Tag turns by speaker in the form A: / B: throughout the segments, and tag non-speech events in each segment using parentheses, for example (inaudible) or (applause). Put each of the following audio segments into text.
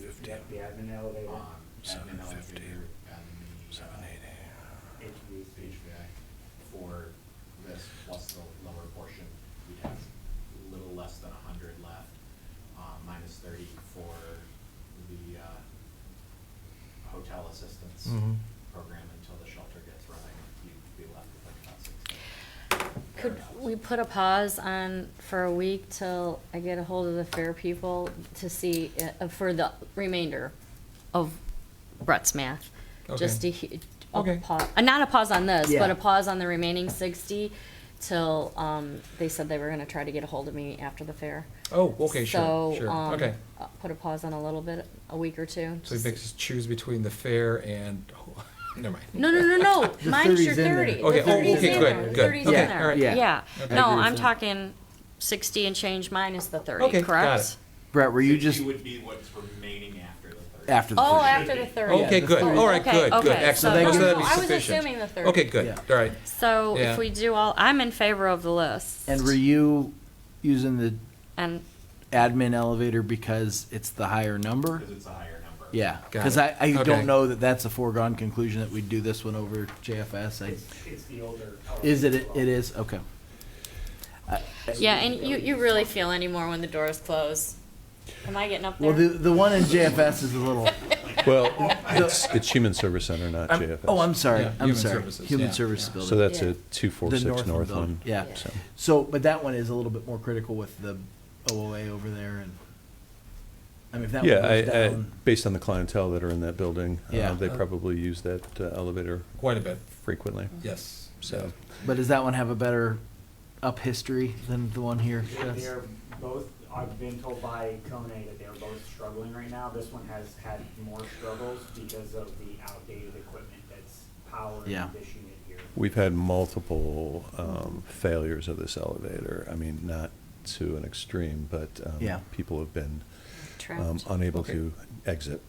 A: You have the admin elevator,
B: Um,
A: admin
B: admin
A: elevator,
B: elevator, admin, uh,
A: HVAC.
B: HVAC for this plus the lower portion, we'd have a little less than a hundred left, uh, minus thirty for the, uh, hotel assistance
A: Mm-hmm.
C: Mhm.
B: program until the shelter gets running, you'd be left with like about sixty.
D: Could we put a pause on for a week till I get a hold of the fair people to see, uh, for the remainder of Brett's math? Just to,
C: Okay.
D: he- a
C: Okay.
D: pause, uh, not a pause on this, but
A: Yeah.
D: a pause on the remaining sixty till, um, they said they were gonna try to get a hold of me after the fair.
C: Oh, okay, sure,
D: So,
C: sure,
D: um,
C: okay.
D: uh, Put a pause on a little bit, a week or two.
C: So he
D: just-
C: makes us choose between the fair and, (laughs) oh, never mind.
D: No, no, no, (laughs) no.
A: (laughs) The
D: Mine's
A: 30's
D: your
A: in there.
D: thirty. The
C: Okay, oh,
D: 30's
C: okay,
D: in
C: good,
D: there. The
C: good.
D: 30's
A: Okay,
D: in there.
A: all right. Yeah.
D: Yeah.
C: Okay.
D: No,
A: I agree
D: I'm
A: with that.
D: talking sixty and change minus the thirty,
C: Okay,
D: correct?
C: got it.
A: Brett, were you
B: 60
A: just
B: would be what's remaining after the thirty.
A: after the?
D: Oh,
A: thirty?
D: after the thirty.
C: Okay,
A: the
C: good,
A: thirty.
C: all right,
D: Okay,
C: good, good,
D: okay. So
C: excellent.
A: no,
C: So
A: no,
C: that'd be
D: I was
C: sufficient.
D: assuming the thirty.
C: Okay, good,
A: Yeah.
C: all right.
D: So
C: Yeah.
D: if we do all, I'm in favor of the list.
A: And were you using the
D: And
A: admin elevator because it's the higher number?
B: Cause it's a higher number.
A: Yeah,
C: Got
A: because
C: it.
A: I, I
C: Okay.
A: don't know that that's a foregone conclusion that we'd do this one over JFS. I,
E: It's, it's the older.
A: is it,
E: elevator.
A: it is, okay. I- I-
D: yeah, and you, you really feel anymore when the doors close. Am I getting up there?
A: Well, the, the one in JFS is
D: (laughs)
A: a little,
F: Well, it's, it's Human Service Center, not
A: I'm-
F: JFS.
A: oh, I'm sorry,
C: Yeah,
A: I'm
C: human
A: sorry.
C: services,
A: Human
C: yeah.
A: Services
F: So
A: Building.
F: that's a
A: The
F: 246
A: north
F: North
A: building,
F: one.
A: yeah.
F: so.
A: So, but that one is a little bit more critical with the OOA over there and, I mean, if that one
F: Yeah,
A: goes
F: I, I,
A: down.
F: based on the clientele that are in that building,
A: Yeah.
F: uh, they probably use that uh, elevator
C: Quite a bit,
F: frequently.
C: yes.
F: So,
A: But does that one have a better up history than the one here? Yes.
E: They're both, I've been told by Kone that they're both struggling right now. This one has had more struggles because of the outdated equipment that's powering
A: Yeah.
E: this unit here.
F: we've had multiple um, failures of this elevator. I mean, not to an extreme, but um,
A: Yeah.
F: people have been um,
D: Trapped.
F: unable
C: Okay.
F: to exit.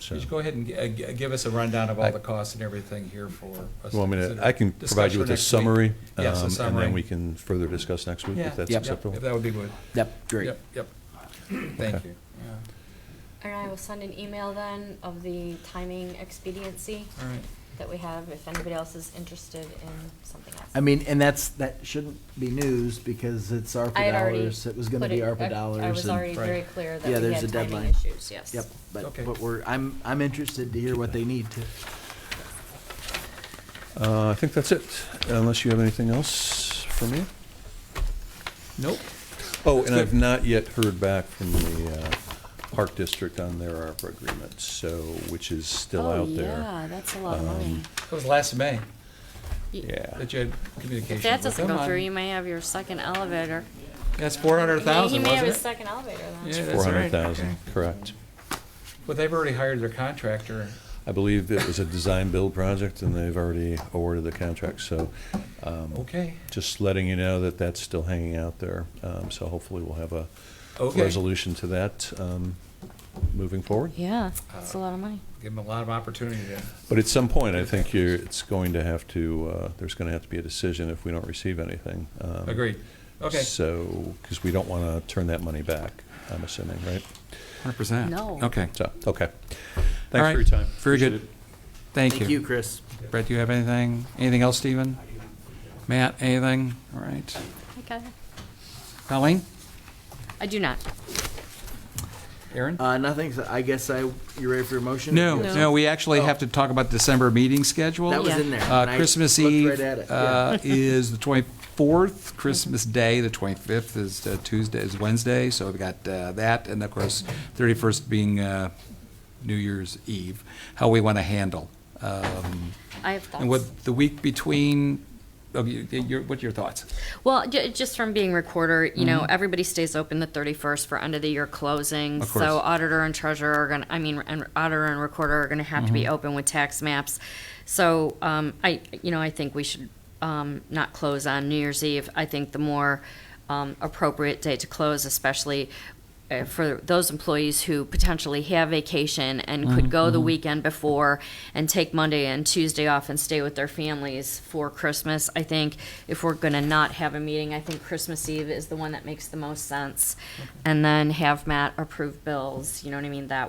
F: So,
C: Just go ahead and gi- uh, gi- give us a rundown of all
F: I-
C: the costs and everything here for us.
F: you want me
C: consider.
F: to, I can provide
C: Discuss for
F: you with a
C: next week.
F: summary.
C: Yes,
F: um,
C: a summary.
F: And then we can further discuss next week,
C: Yeah.
F: if that's
A: Yep.
F: acceptable.
C: Yep, If that would be good.
A: Yep, great.
C: Yep, yep. Thank
F: Okay.
C: you.
D: And I will send an email then of the timing expediency
C: All right.
D: that we have if anybody else is interested in something else.
A: I mean, and that's, that shouldn't be news because it's
D: I
A: ARPA
D: had already
A: dollars. It was gonna
D: put
A: be
D: it- I-
A: ARPA dollars.
D: I was
A: and-
D: already
C: Right.
D: very clear
A: Yeah,
D: that we
A: there's
D: had
A: a
D: timing
A: deadline.
D: issues, yes.
A: Yep, but,
C: Okay.
A: but we're, I'm, I'm interested to hear what they need to.
F: Uh, I think that's it, unless you have anything else for me.
C: Nope.
F: Oh, and I've not yet heard back from the uh, Park District on their ARPA agreement, so, which is still
C: Oh,
F: out there.
D: Oh, that's a
F: lot of money. Um,
C: That was last May
F: Yeah.
C: that you had communication
D: If that
C: with
D: doesn't
C: them
D: go through,
C: on-
D: you may have your second elevator.
C: That's four hundred thousand,
D: He may have
C: wasn't
D: his
C: it?
D: second elevator then.
C: Yeah, that's
F: Four
C: right,
F: hundred thousand,
C: okay.
F: correct.
C: But they've already hired their contractor.
F: I believe it was a design-build project, and they've already awarded the contract, so um,
C: Okay.
F: just letting you know that that's still hanging out there. Um, So hopefully we'll have a
C: Okay.
F: resolution to that um, moving forward.
D: Yeah, that's a lot of money.
C: Give them a lot of opportunity to.
F: But at some point, I think you're, it's going to have to, uh, there's going to have to be a decision if we don't receive anything. Um,
C: Agreed. Okay.
F: So, because we don't want to turn that money back, I'm assuming, right?
C: Hundred percent.
D: No.
C: Okay.
F: So, okay.
C: All
F: Thanks
C: right.
F: for your time.
C: Very good.
F: Appreciate it.
C: Thank you.
A: Chris.
C: Brett, do you have anything? Anything else, Stephen? Matt, anything? All right.
D: Okay.
C: Colleen?
D: I do not.
C: Aaron?
A: Uh, nothing, so I guess I, you ready for your motion?
C: No,
A: Yes.
C: no, we actually
A: Oh.
C: have to talk about December meeting schedule.
A: That was
D: Yeah.
A: in there.
C: Uh,
A: and I
C: Christmas
A: looked
C: Eve
A: right at it, yeah. (laughs)
C: uh, is the 24th, Christmas Day, the 25th is uh, Tuesday, is Wednesday, so we've got uh, that, and of course, 31st being uh, New Year's Eve, how we want to handle. um,
D: I have
C: And
D: thoughts.
C: what, the week between, of you, your, what are your thoughts?
D: Well, ju- just from being recorder, you know, everybody stays open the thirty-first for end of the year closing.
C: Of course.
D: So auditor and treasurer are gonna, I mean, and auditor and recorder are gonna have to
C: Mm-hmm.
D: be open with tax maps. So, um, I, you know, I think we should, um, not close on New Year's Eve. I think the more, um, appropriate day to close, especially uh, for those employees who potentially have vacation and
C: Mm-hmm.
D: could go the weekend before and take Monday and Tuesday off and stay with their families for Christmas. I think if we're going to not have a meeting, I think Christmas Eve is the one that makes the most sense. And then have Matt approve bills, you know what I mean? That